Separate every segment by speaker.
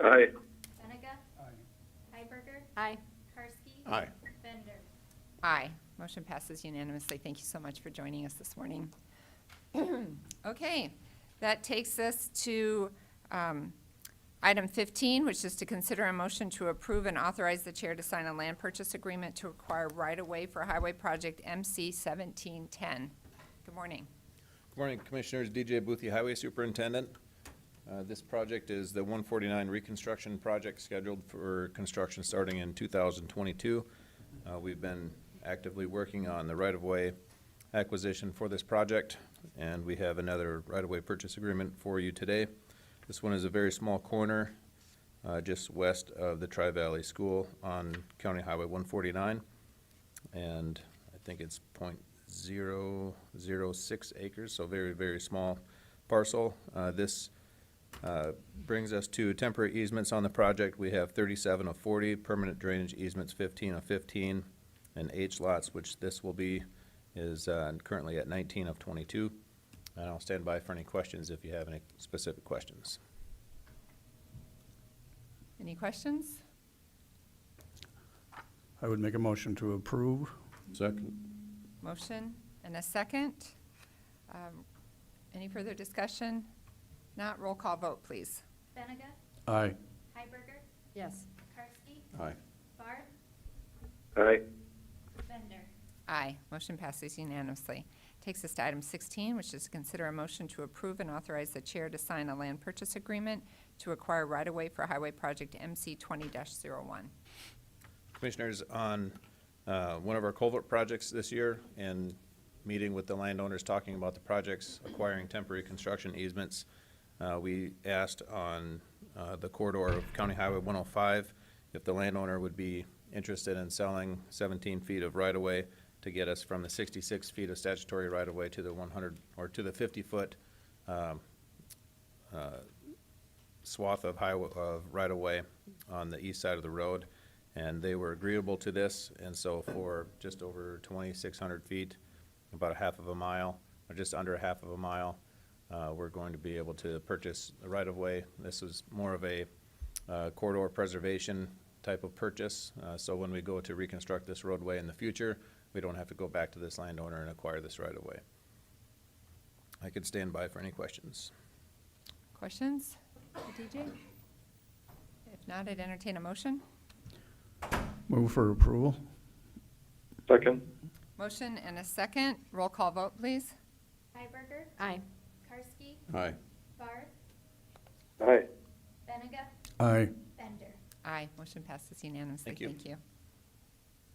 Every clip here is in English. Speaker 1: Aye.
Speaker 2: Benega. Hiberger.
Speaker 3: Aye.
Speaker 2: Karski.
Speaker 4: Aye.
Speaker 2: Bender.
Speaker 3: Aye. Motion passes unanimously. Thank you so much for joining us this morning. Okay, that takes us to um, item 15, which is to consider a motion to approve and authorize the chair to sign a land purchase agreement to acquire right-of-way for Highway Project MC 1710. Good morning.
Speaker 4: Good morning, Commissioners. DJ Boothie, Highway Superintendent. Uh, This project is the 149 reconstruction project scheduled for construction starting in 2022. Uh, We've been actively working on the right-of-way acquisition for this project, and we have another right-of-way purchase agreement for you today. This one is a very small corner uh, just west of the Tri-Valley School on County Highway 149 and I think it's point zero zero six acres, so very, very small parcel. Uh, this, uh, brings us to temporary easements on the project. We have thirty-seven of forty, permanent drainage easements fifteen of fifteen, and H lots, which this will be, is, uh, currently at nineteen of twenty-two. And I'll stand by for any questions if you have any specific questions.
Speaker 3: Any questions?
Speaker 5: I would make a motion to approve.
Speaker 4: Second.
Speaker 3: Motion and a second. Um, Any further discussion? Not roll call vote, please.
Speaker 2: Benega.
Speaker 5: Aye.
Speaker 2: Hiberger.
Speaker 3: Yes.
Speaker 2: Karski.
Speaker 4: Aye.
Speaker 2: Barth.
Speaker 1: Aye.
Speaker 2: Bender.
Speaker 3: Aye. Motion passes unanimously. Takes us to item 16, which is to consider a motion to approve and authorize the chair to sign a land purchase agreement to acquire right-of-way for Highway Project MC 20-01.
Speaker 4: commissioners on uh, one of our culvert projects this year and meeting with the landowners, talking about the projects, acquiring temporary construction easements. Uh, We asked on uh, the corridor of County Highway 105 if the landowner would be interested in selling 17 feet of right-of-way to get us from the 66 feet of statutory right-of-way to the 100, or to the 50-foot swath of highway, of right-of-way on the east side of the road, and they were agreeable to this, and so for just over twenty-six hundred feet, about a half of a mile, or just under a half of a mile, uh, we're going to be able to purchase the right-of-way. This is more of a uh, corridor preservation type of purchase, uh, so when we go to reconstruct this roadway in the future, we don't have to go back to this landowner and acquire this right-of-way. I could stand by for any questions.
Speaker 3: Questions for DJ? If not, I'd entertain a motion.
Speaker 5: Move for approval.
Speaker 1: Second.
Speaker 3: Motion and a second. Roll call vote, please.
Speaker 2: Hiberger.
Speaker 3: Aye.
Speaker 2: Karski.
Speaker 4: Aye.
Speaker 2: Barth.
Speaker 1: Aye.
Speaker 2: Benega.
Speaker 5: Aye.
Speaker 2: Bender.
Speaker 3: Aye, motion passes unanimously.
Speaker 4: Thank you.
Speaker 3: Thank you.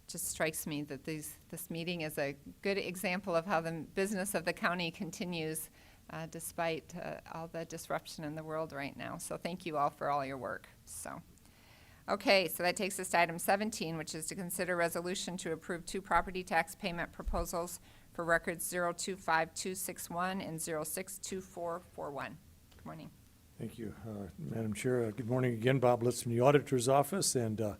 Speaker 3: Just strikes me that these, this meeting is a good example of how the business of the county continues uh, despite uh, all the disruption in the world right now. So thank you all for all your work, so. Okay, so that takes us to item 17, which is to consider resolution to approve two property tax payment proposals for records 025261 and 062441. Good morning.
Speaker 6: Thank you, uh, Madam Chair. Uh, Good morning again, Bob Litz from the Auditor's Office, and uh,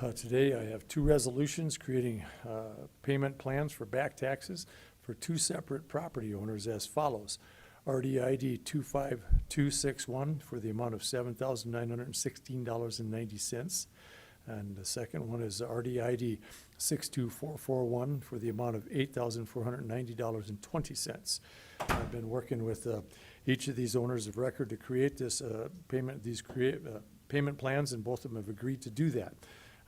Speaker 6: uh, today I have two resolutions creating uh, payment plans for back taxes for two separate property owners as follows. RDID 25261 for the amount of $7,916.90. And the second one is RDID 62441 for the amount of $8,490.20. I've been working with uh, each of these owners of record to create this uh, payment, these create, uh, payment plans, and both of them have agreed to do that.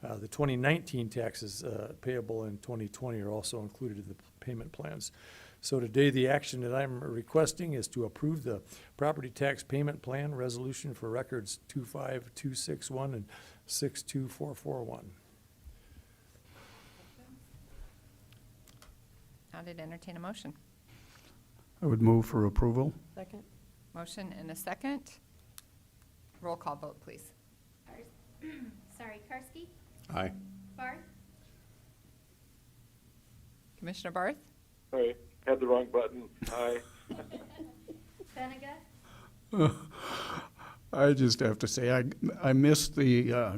Speaker 6: Uh, The 2019 taxes uh, payable in 2020 are also included in the p- payment plans. So today, the action that I'm requesting is to approve the property tax payment plan resolution for records 25261 and 62441.
Speaker 3: Now to entertain a motion.
Speaker 5: I would move for approval.
Speaker 7: Second?
Speaker 3: Motion and a second. Roll call vote, please.
Speaker 2: Kars- Sorry, Karski.
Speaker 4: Aye.
Speaker 2: Barth.
Speaker 3: Commissioner Barth?
Speaker 1: Sorry, had the wrong button. Aye.
Speaker 2: Benega.
Speaker 5: I just have to say, I, I missed the uh,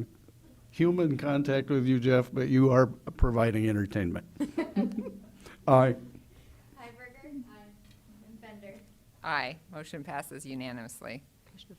Speaker 5: human contact with you, Jeff, but you are providing entertainment. Aye.
Speaker 2: Hiberger. Aye. And Bender.
Speaker 3: Aye. Motion passes unanimously.
Speaker 7: Commissioner Barth?